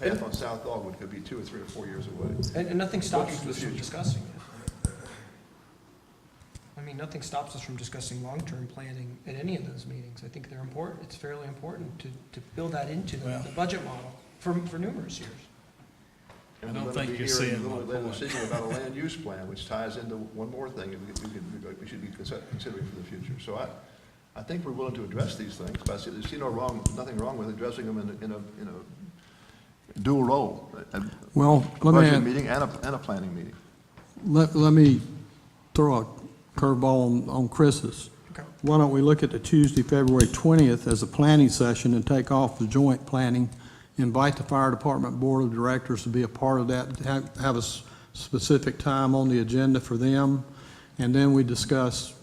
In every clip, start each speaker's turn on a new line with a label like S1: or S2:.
S1: path on South Dogwood could be two or three or four years away.
S2: And, and nothing stops
S1: Looking to the
S2: us from
S1: future.
S2: discussing it. I mean, nothing stops us from discussing long-term planning at any of those meetings. I think they're important, it's fairly important to, to build that into the,
S3: Well-
S2: the budget model for, for numerous years.
S1: And
S3: I
S1: we're
S3: don't
S1: gonna
S3: think
S1: be
S3: you're
S1: hearing
S3: seeing
S1: a little
S3: my
S1: bit later
S3: point.
S1: Decision about a land use plan, which ties into one more thing that we could- we should be consi- considering for the future. So I, I think we're willing to address these things, but I see, there's no wrong, nothing wrong with addressing them in, a- in a, in a dual role. a- a
S4: Well, let me,
S1: Budget
S4: add-
S1: meeting and a, and a planning meeting.
S4: let, let me throw a curveball on, on Chris's.
S2: Okay.
S4: Why don't we look at the Tuesday, February 20th as a planning session and take off the joint planning? Invite the fire department board of directors to be a part of that, have, have a s- specific time on the agenda for them. And then we discuss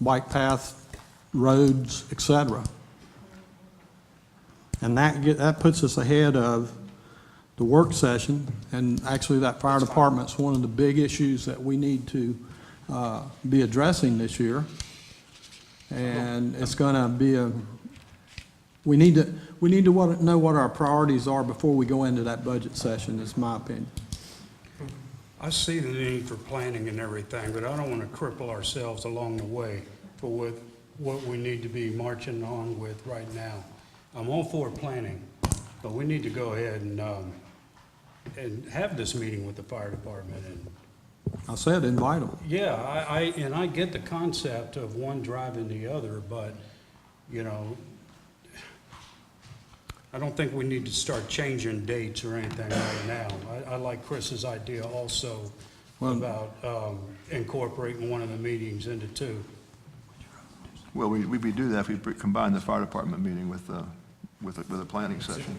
S4: bike path, roads, et cetera. And that get, that puts us ahead of the work session, and actually that fire department's one of the big issues that we need to, uh, be addressing this year. And it's gonna be a, we need to, we need to what- know what our priorities are before we go into that budget session, is my opinion.
S5: I see the need for planning and everything, but I don't want to cripple ourselves along the way for what, what we need to be marching on with right now. I'm all for planning, but we need to go ahead and, um, and have this meeting with the fire department and
S4: I said invite them.
S5: yeah, I, I, and I get the concept of one driving the other, but, you know, I don't think we need to start changing dates or anything right now. I, I like Chris's idea also about, um, incorporating one of the meetings into two.
S1: Well, we, we'd be do that if we pre- combine the fire department meeting with, uh, with, a- with a planning session.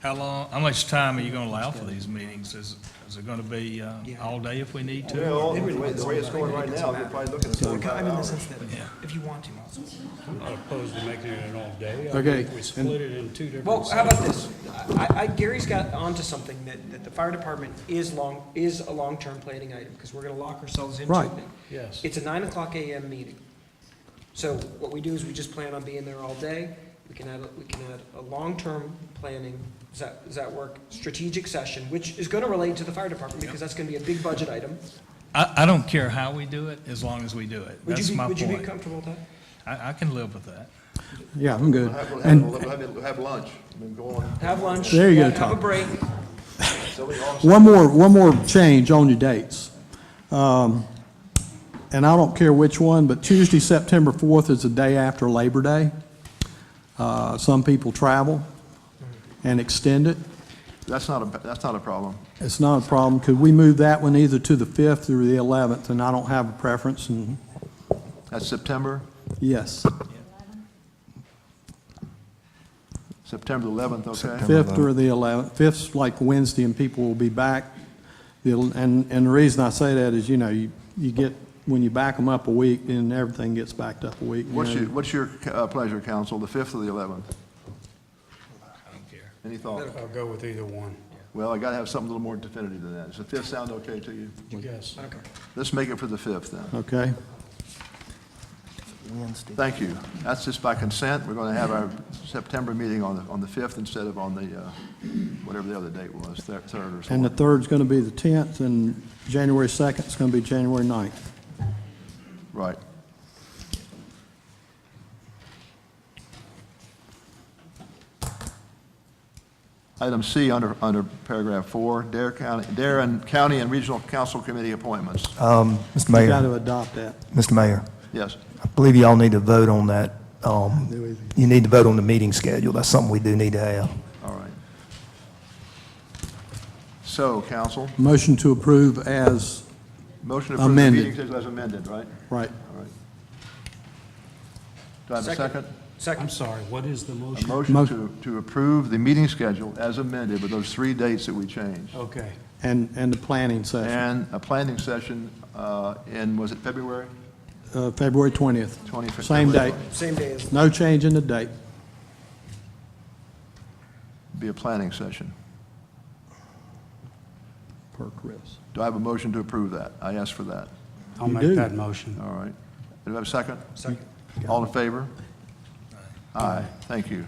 S3: How long, how much time are you going to allow for these meetings? Is, is it going to be uh, all day if we need to?
S1: Well, the way, the way it's going right now, you're probably looking at
S2: So, I
S1: forty-five
S2: mean, in the
S1: hours.
S2: sense that, if you want to also.
S5: I'm not opposed to making it an all day. I
S4: Okay,
S5: think We
S4: and-
S5: split it in two different.
S2: Well, how about
S5: sections.
S2: this? I, I, Gary's got onto something that, that the fire department is long, is a long-term planning item, because we're gonna lock ourselves into
S4: Right.
S2: it.
S5: Yes.
S2: It's a nine o'clock AM meeting. So what we do is we just plan on being there all day. We can add, a- we can add a long-term planning, does that, does that work? Strategic session, which is gonna relate to the fire department, because that's gonna be a big budget item.
S3: I, I don't care how we do it, as long as we do it.
S2: Would you
S3: That's
S2: be,
S3: my
S2: would you be
S3: point.
S2: comfortable with that?
S3: I, I can live with that.
S4: Yeah, I'm good.
S1: We'll have, we'll have,
S4: And
S1: we'll have- we'll have lunch, and then go on.
S2: Have lunch.
S4: There you go,
S2: Have a
S4: Tom.
S2: break.
S1: So we all-
S4: One more, one more change on your dates. Um, And I don't care which one, but Tuesday, September 4th is the day after Labor Day. Uh, Some people travel and extend it.
S1: That's not a, that's not a problem.
S4: It's not a problem. Could we move that one either to the 5th or the 11th? And I don't have a preference, and
S1: That's September,
S4: yes,
S1: September eleventh, okay?
S4: 5th or the 11th. 5th's like Wednesday, and people will be back. The el- And, and the reason I say that is, you know, you, you get, when you back them up a week, then everything gets backed up a week. you
S1: What's
S4: know.
S1: your, what's your uh, pleasure, council, the fifth or the eleventh?
S3: I don't care.
S1: Any thought?
S5: I'll go with either one.
S1: Well, I gotta have something a little more definitive than that. Does the fifth sound okay to you?
S5: Yes.
S2: Okay.
S1: Let's make it for the fifth then.
S4: Okay.
S1: Thank you. That's just by consent. We're going to have our September meeting on the, on the 5th instead of on the, uh, whatever the other date was, thir- 3rd or
S4: And the
S1: something.
S4: third's going to be the 10th, and January 2nd is going to be January 9th.
S1: Right. Item C, under, under paragraph 4, Dare County, Dare and County and Regional Council Committee appointments.
S4: Uh,
S6: Um, Mr.
S4: You got
S6: Mayor,
S4: to adopt that.
S6: Mr. Mayor,
S1: Yes.
S6: I believe y'all need to vote on that. um, You need to vote on the meeting schedule. That's something we do need to have.
S1: All right. So, council,
S4: Motion to approve as,
S1: motion to approve the
S4: Amended.
S1: meeting schedule as amended, right?
S4: right,
S1: All right. Do I have a
S2: Second.
S1: second?
S5: I'm
S2: Second,
S5: sorry, what is the
S1: A
S5: motion?
S1: motion
S4: Mo-
S1: to, to approve the meeting schedule as amended with those three dates that we changed.
S5: Okay.
S4: and, and the planning session,
S1: And a planning session uh, in, was it February?
S4: uh, February 20th.
S1: 20th.
S4: Same date,
S2: same day as,
S4: no change in the date.
S1: Be a planning session.
S4: Per Chris.
S1: Do I have a motion to approve that? I asked for that.
S5: I'll
S4: You
S5: make
S4: do.
S5: that motion.
S1: All right. Do I have a second?
S2: second.
S1: All in favor? Aye, thank you.